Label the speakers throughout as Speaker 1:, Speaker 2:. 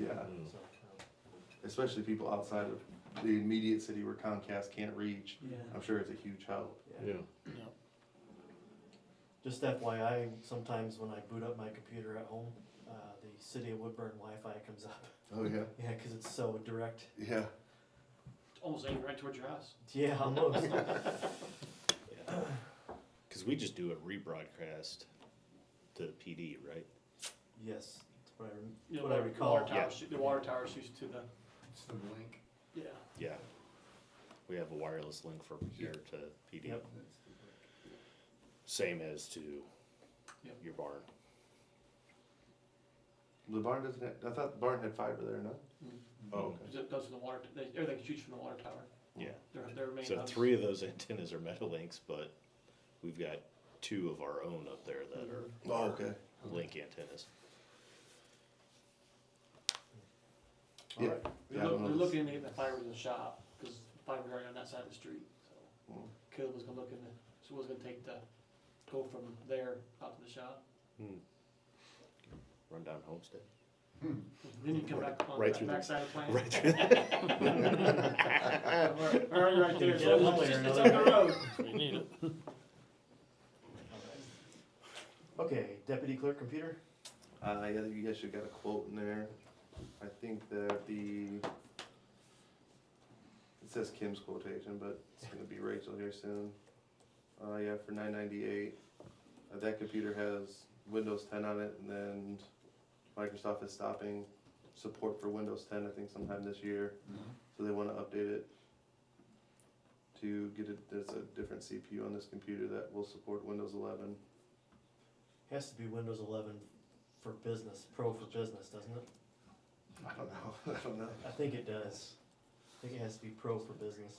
Speaker 1: Yeah.
Speaker 2: um,
Speaker 1: especially people outside of the immediate city where Comcast can't reach. I'm sure it's a huge help.
Speaker 3: Yeah,
Speaker 2: Just FYI, sometimes when I boot up my computer at home, uh, the city of Woodburn Wi-Fi comes up.
Speaker 1: Oh, yeah?
Speaker 2: Yeah, cause it's so direct.
Speaker 1: Yeah.
Speaker 4: Almost aimed right towards your house.
Speaker 2: Yeah, almost.
Speaker 5: Because we just do a rebroadcast to the PD, right?
Speaker 2: Yes, that's what I rem-
Speaker 4: You know,
Speaker 2: What I
Speaker 4: the
Speaker 2: recall.
Speaker 4: water tower shoot- The water tower shoots to the,
Speaker 6: It's the link.
Speaker 4: yeah.
Speaker 5: Yeah. We have a wireless link from here to PD.
Speaker 2: Yep.
Speaker 5: Same as to
Speaker 4: Yep.
Speaker 5: your barn.
Speaker 1: The barn doesn't have, I thought the barn had fiber there, no? Oh, okay.
Speaker 4: It goes to the water, t- they, or they can shoot from the water tower.
Speaker 5: Yeah.
Speaker 4: Their, their main
Speaker 5: So
Speaker 4: hubs.
Speaker 5: three of those antennas are Metalinks, but we've got two of our own up there that are
Speaker 1: Oh, okay.
Speaker 5: link antennas.
Speaker 1: Yeah.
Speaker 2: Alright.
Speaker 1: Yeah,
Speaker 4: They're
Speaker 1: I
Speaker 4: look-
Speaker 1: don't know.
Speaker 4: they're looking at the fiber in the shop, cause fiber's already on that side of the street, so.
Speaker 1: Mm.
Speaker 4: Caleb was gonna look into, so was gonna take the, go from there out to the shop,
Speaker 5: Rundown homestead.
Speaker 2: Mm-hmm.
Speaker 4: then you come back on
Speaker 5: Right
Speaker 4: the
Speaker 5: through the-
Speaker 4: backside of the plant.
Speaker 5: Right through.
Speaker 4: Alright, Right there,
Speaker 2: Yeah, one way or
Speaker 4: so it's just, it's
Speaker 2: another.
Speaker 4: up the road.
Speaker 2: Okay, deputy clerk computer?
Speaker 1: Uh, yeah, you guys should have got a quote in there. I think that the, it says Kim's quotation, but it's gonna be Rachel here soon. Uh, yeah, for nine ninety-eight. Uh, that computer has Windows ten on it, and then Microsoft is stopping support for Windows ten, I think sometime this year. So they wanna update it to get it, there's a different CPU on this computer that will support Windows eleven.
Speaker 2: Has to be Windows eleven for business, pro for business, doesn't it?
Speaker 1: I don't know, I don't know.
Speaker 2: I think it does. I think it has to be pro for business.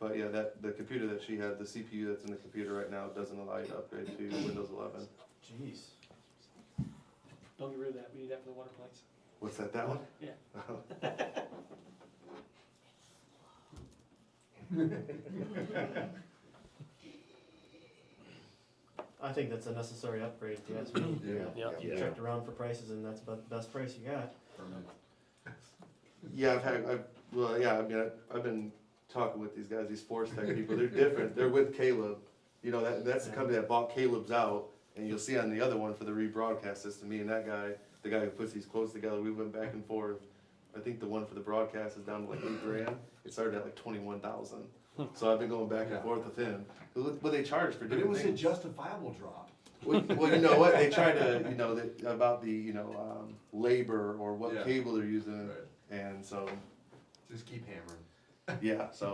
Speaker 1: But yeah, that the computer that she had, the CPU that's in the computer right now, doesn't allow you to upgrade to Windows 11.
Speaker 2: Jeez.
Speaker 4: Don't get rid of that, we need that for the water plants.
Speaker 1: What's that? That one?
Speaker 4: Yeah.
Speaker 2: I think that's a necessary upgrade, if you ask me.
Speaker 1: Yeah.
Speaker 2: You checked around for prices and that's about the best price you got.
Speaker 1: Yeah, I've had. I've, well, yeah. I mean, I, I've been talking with these guys, these Force Tech people. They're different. They're with Caleb. You know, that that's the company that bought Caleb's out, and you'll see on the other one for the rebroadcast system. Me and that guy, the guy who puts these quotes together, we went back and forth. I think the one for the broadcast is down to like eight grand. It started at like twenty one thousand. So I've been going back and forth with him. What what they charge for
Speaker 6: But it
Speaker 1: different
Speaker 6: was a
Speaker 1: things.
Speaker 6: justifiable drop.
Speaker 1: Well, well, you know what, they try to, you know, that, about the, you know, um, labor or what
Speaker 6: Yeah.
Speaker 1: cable they're using,
Speaker 6: Right.
Speaker 1: and so,
Speaker 6: Just keep hammering.
Speaker 1: yeah, so.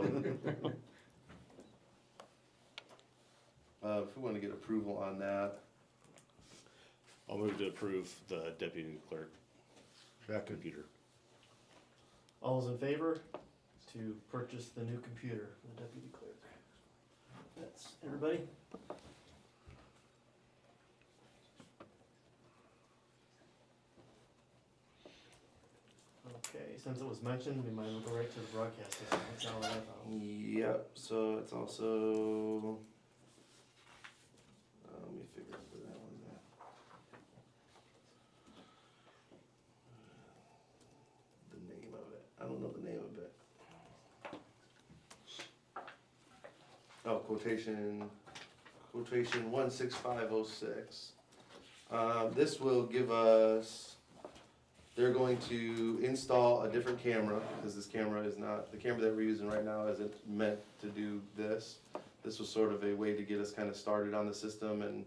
Speaker 1: Uh, if we wanna get approval on that,
Speaker 5: I'll move to approve the deputy clerk. Computer.
Speaker 2: All those in favor to purchase the new computer, for the deputy clerk? That's everybody? Okay, since it was mentioned, we might as well go right to the broadcast system, that's all I have.
Speaker 1: yep, so it's also. Uh, let me figure out where that one's at. The name of it, I don't know the name of it. Oh, quotation, quotation one six five oh six. Uh, this will give us, they're going to install a different camera, because this camera is not, the camera that we're using right now isn't meant to do this. This was sort of a way to get us kind of started on the system and,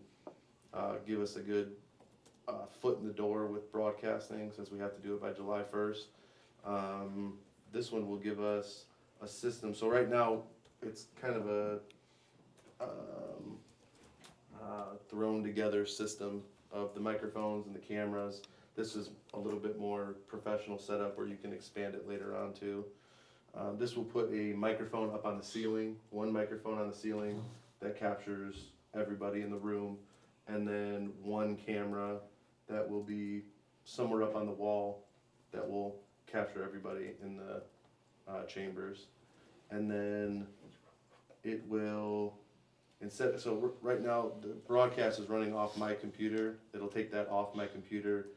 Speaker 1: uh, give us a good, uh, foot in the door with broadcasting, since we have to do it by July first. Um, this one will give us a system, so right now, it's kind of a, um, uh, thrown together system of the microphones and the cameras. This is a little bit more professional setup where you can expand it later on too. Uh, this will put a microphone up on the ceiling, one microphone on the ceiling that captures everybody in the room, and then one camera that will be somewhere up on the wall that will capture everybody in the uh, chambers. And then it will instead so r- right now the broadcast is running off my computer it'll take that off my computer